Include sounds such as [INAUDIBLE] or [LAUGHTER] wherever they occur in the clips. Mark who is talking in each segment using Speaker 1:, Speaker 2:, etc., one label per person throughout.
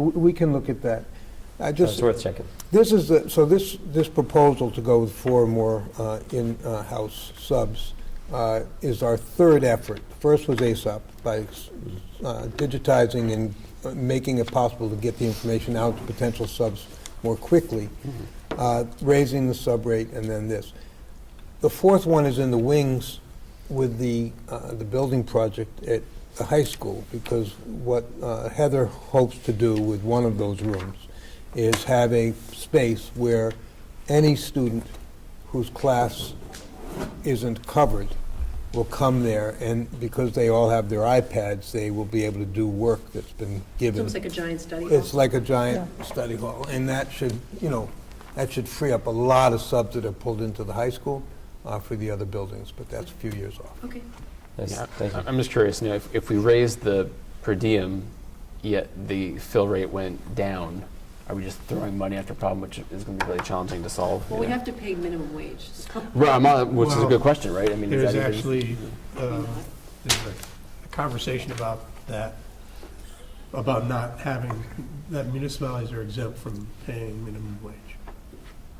Speaker 1: W- We can look at that. I
Speaker 2: So
Speaker 1: just,
Speaker 2: It's worth checking.
Speaker 1: this is, the- so this, this proposal to go with four more uh, in-house subs uh, is our third effort. First was ASAP by uh, digitizing and uh, making it possible to get the information out to potential subs more quickly, uh, raising the sub rate, and then this. The fourth one is in the wings with the, uh, the building project at the high school, because what uh, Heather hopes to do with one of those rooms is have a space where any student whose class isn't covered will come there, and because they all have their iPads, they will be able to do work that's been
Speaker 3: It's
Speaker 1: given.
Speaker 3: almost like a giant study. hall.
Speaker 1: It's like a giant study hall, and that should, you know, that should free up a lot of subs that are pulled into the high school uh, for the other buildings, but that's a few years off.
Speaker 3: Okay.
Speaker 2: Nice.
Speaker 4: Yeah,
Speaker 2: Thank you.
Speaker 4: I- I'm just curious, you know, if, if we raised the per diem, yet the fill rate went down, are we just throwing money after a problem which is going to be really challenging to solve?
Speaker 3: Well,
Speaker 4: you
Speaker 3: we
Speaker 4: know?
Speaker 3: have to pay minimum wage, so.
Speaker 4: Right, I'm not- which is a
Speaker 5: Well,
Speaker 4: good question, right? I mean, is
Speaker 5: There's
Speaker 4: that even-
Speaker 5: actually, uh, there's a a conversation about that, about not having, that municipalities are exempt from paying minimum wage.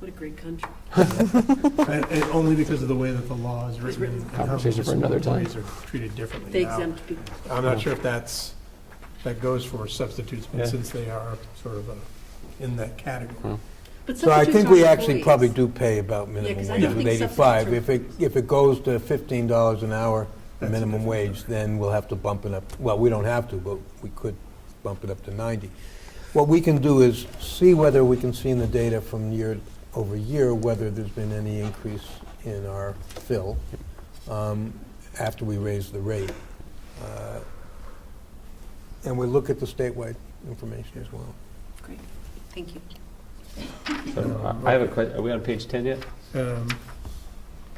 Speaker 3: What a great country.
Speaker 5: And and only because of the way that the law is
Speaker 3: It's
Speaker 5: written.
Speaker 3: written.
Speaker 5: and how
Speaker 4: Conversation for another time.
Speaker 5: Employees are treated differently
Speaker 3: They
Speaker 5: now.
Speaker 3: exempt people.
Speaker 5: I'm not sure if that's, that goes for substitutes,
Speaker 4: Yeah.
Speaker 5: but since they are sort of a- in that category.
Speaker 3: But
Speaker 1: So I
Speaker 3: substitutes
Speaker 1: think we
Speaker 3: aren't
Speaker 1: actually probably
Speaker 3: employees.
Speaker 1: do pay about minimum
Speaker 3: 'cause I
Speaker 1: wage
Speaker 3: don't
Speaker 1: with
Speaker 3: think
Speaker 1: 85. If it,
Speaker 3: substitutes are-
Speaker 1: if it goes to $15 an hour, the
Speaker 5: That's a
Speaker 1: minimum
Speaker 5: different
Speaker 1: wage, then we'll have to bump it up. Well, we don't have to, but we could bump it up to 90. What we can do is see whether we can see in the data from year over year whether there's been any increase in our fill um, after we raise the rate. Uh, And we look at the statewide information as well.
Speaker 3: Great, thank you.
Speaker 2: So, uh, I have a question. Are we on page 10 yet?
Speaker 5: Um,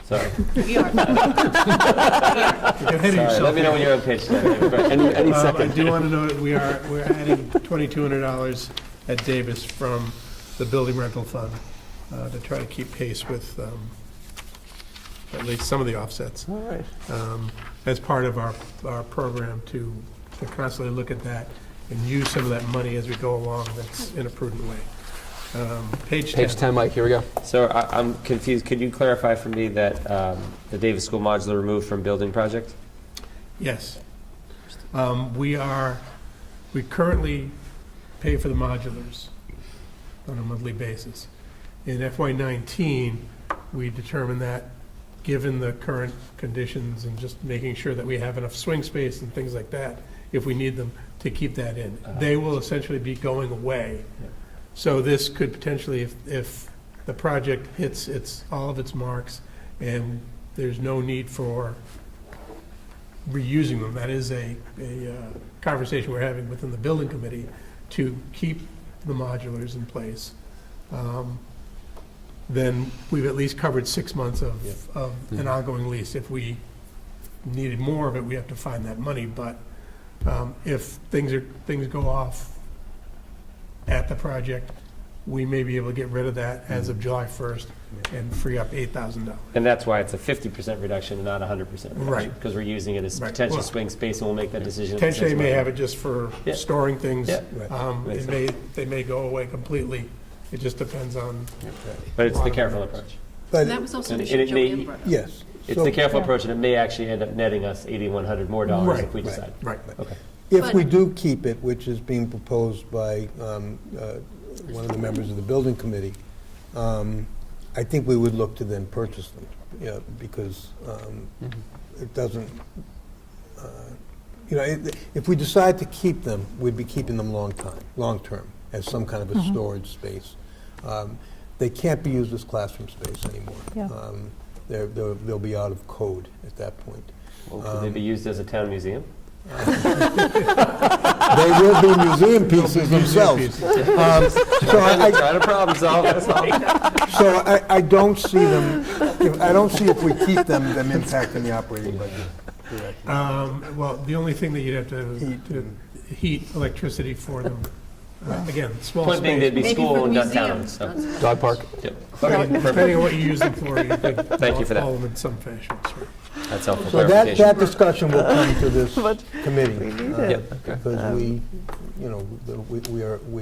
Speaker 2: Sorry.
Speaker 1: [LAUGHS]
Speaker 3: We are.
Speaker 5: You're ahead of
Speaker 2: Sorry.
Speaker 5: yourself
Speaker 2: Let me know
Speaker 5: here.
Speaker 2: when you're on page
Speaker 5: [LAUGHS]
Speaker 2: 10. Any, any
Speaker 5: Um, I
Speaker 2: second.
Speaker 5: do want to note, we are, we're adding $2,200 at Davis from the building rental fund uh, to try to keep pace with um, at least some of the offsets.
Speaker 2: All right.
Speaker 5: um, As part of our, our program to to constantly look at that and use some of that money as we go along, that's in a prudent way. Um, Page 10.
Speaker 4: Page 10, Mike, here we go.
Speaker 2: So I, I'm confused. Could you clarify for me that um, the Davis School modular removed from building project?
Speaker 5: Yes. Um, We are, we currently pay for the modulars on a monthly basis. In FY nineteen, we determined that, given the current conditions and just making sure that we have enough swing space and things like that, if we need them, to keep that in. They will essentially be going away.
Speaker 2: Yeah.
Speaker 5: So this could potentially, if, if the project hits its, all of its marks, and there's no need for reusing them. That is a, a uh, conversation we're having within the building committee to keep the modulars in place. Um, Then we've at least covered six months of, of
Speaker 2: Mm-hmm.
Speaker 5: an ongoing lease. If we needed more of it, we have to find that money. But um, if things are, things go off at the project, we may be able to get rid of that as
Speaker 2: Mm-hmm.
Speaker 5: of July 1st and free up $8,000.
Speaker 2: And that's why it's a 50% reduction and not 100% reduction.
Speaker 5: Right.
Speaker 2: Because we're using it as
Speaker 5: Right.
Speaker 2: potential
Speaker 5: Well-
Speaker 2: swing space and we'll make that decision. at the
Speaker 5: Potentially, they
Speaker 2: six
Speaker 5: may
Speaker 2: month.
Speaker 5: have it just for
Speaker 2: Yeah.
Speaker 5: storing things.
Speaker 2: Yeah.
Speaker 1: Right.
Speaker 5: Um,
Speaker 2: Makes
Speaker 5: It may, they may go away completely. It just depends on,
Speaker 2: But it's the careful approach.
Speaker 1: But,
Speaker 3: And that was also
Speaker 2: And
Speaker 3: an
Speaker 2: it-
Speaker 3: issue
Speaker 2: it
Speaker 3: Joe
Speaker 2: may-
Speaker 3: Ann brought up.
Speaker 1: yes.
Speaker 2: It's
Speaker 1: So-
Speaker 2: the careful approach, and it may actually end up netting us 8,100 more dollars
Speaker 5: Right,
Speaker 2: if we
Speaker 1: right.
Speaker 2: decide.
Speaker 5: right.
Speaker 2: Okay.
Speaker 1: If we do keep it, which is being proposed by um, uh, one of the members of the building committee, um, I think we would look to then purchase them, yeah, because um,
Speaker 4: Mm-hmm.
Speaker 1: it doesn't, uh, you know, it- if we decide to keep them, we'd be keeping them long time, long-term, as some kind of a storage space. Um, They can't be used as classroom space anymore.
Speaker 6: Yeah.
Speaker 1: Um, They're, they'll they'll be out of code at that point.
Speaker 2: Well, could they
Speaker 1: Um,
Speaker 2: be used as a town museum?
Speaker 1: They will be museum pieces themselves. Um, So I, I-
Speaker 2: Trying to problem
Speaker 1: [LAUGHS]
Speaker 2: solve, that's all.
Speaker 1: so I, I don't see them, if- I don't see if we keep them, them impacting the operating budget.
Speaker 5: Um, well, the only thing that you'd have to,
Speaker 1: Heat.
Speaker 5: to heat electricity for them Uh, Again, small
Speaker 2: One thing, there'd be
Speaker 3: Maybe
Speaker 5: space.
Speaker 2: school
Speaker 3: for
Speaker 2: and not town,
Speaker 3: museums,
Speaker 2: so.
Speaker 3: not so much.
Speaker 4: Dog park.
Speaker 2: Yep. Okay, perfect.
Speaker 5: Depending on what you use them for, you could
Speaker 2: Thank you for that.
Speaker 5: follow them in some fashion, sure.
Speaker 2: That's helpful
Speaker 1: So that, that
Speaker 2: clarification.
Speaker 1: discussion will come to this
Speaker 6: But
Speaker 1: committee.
Speaker 6: we need
Speaker 1: uh,
Speaker 6: it. Um,
Speaker 2: Yep, okay.
Speaker 1: Because we, you know, we we are, we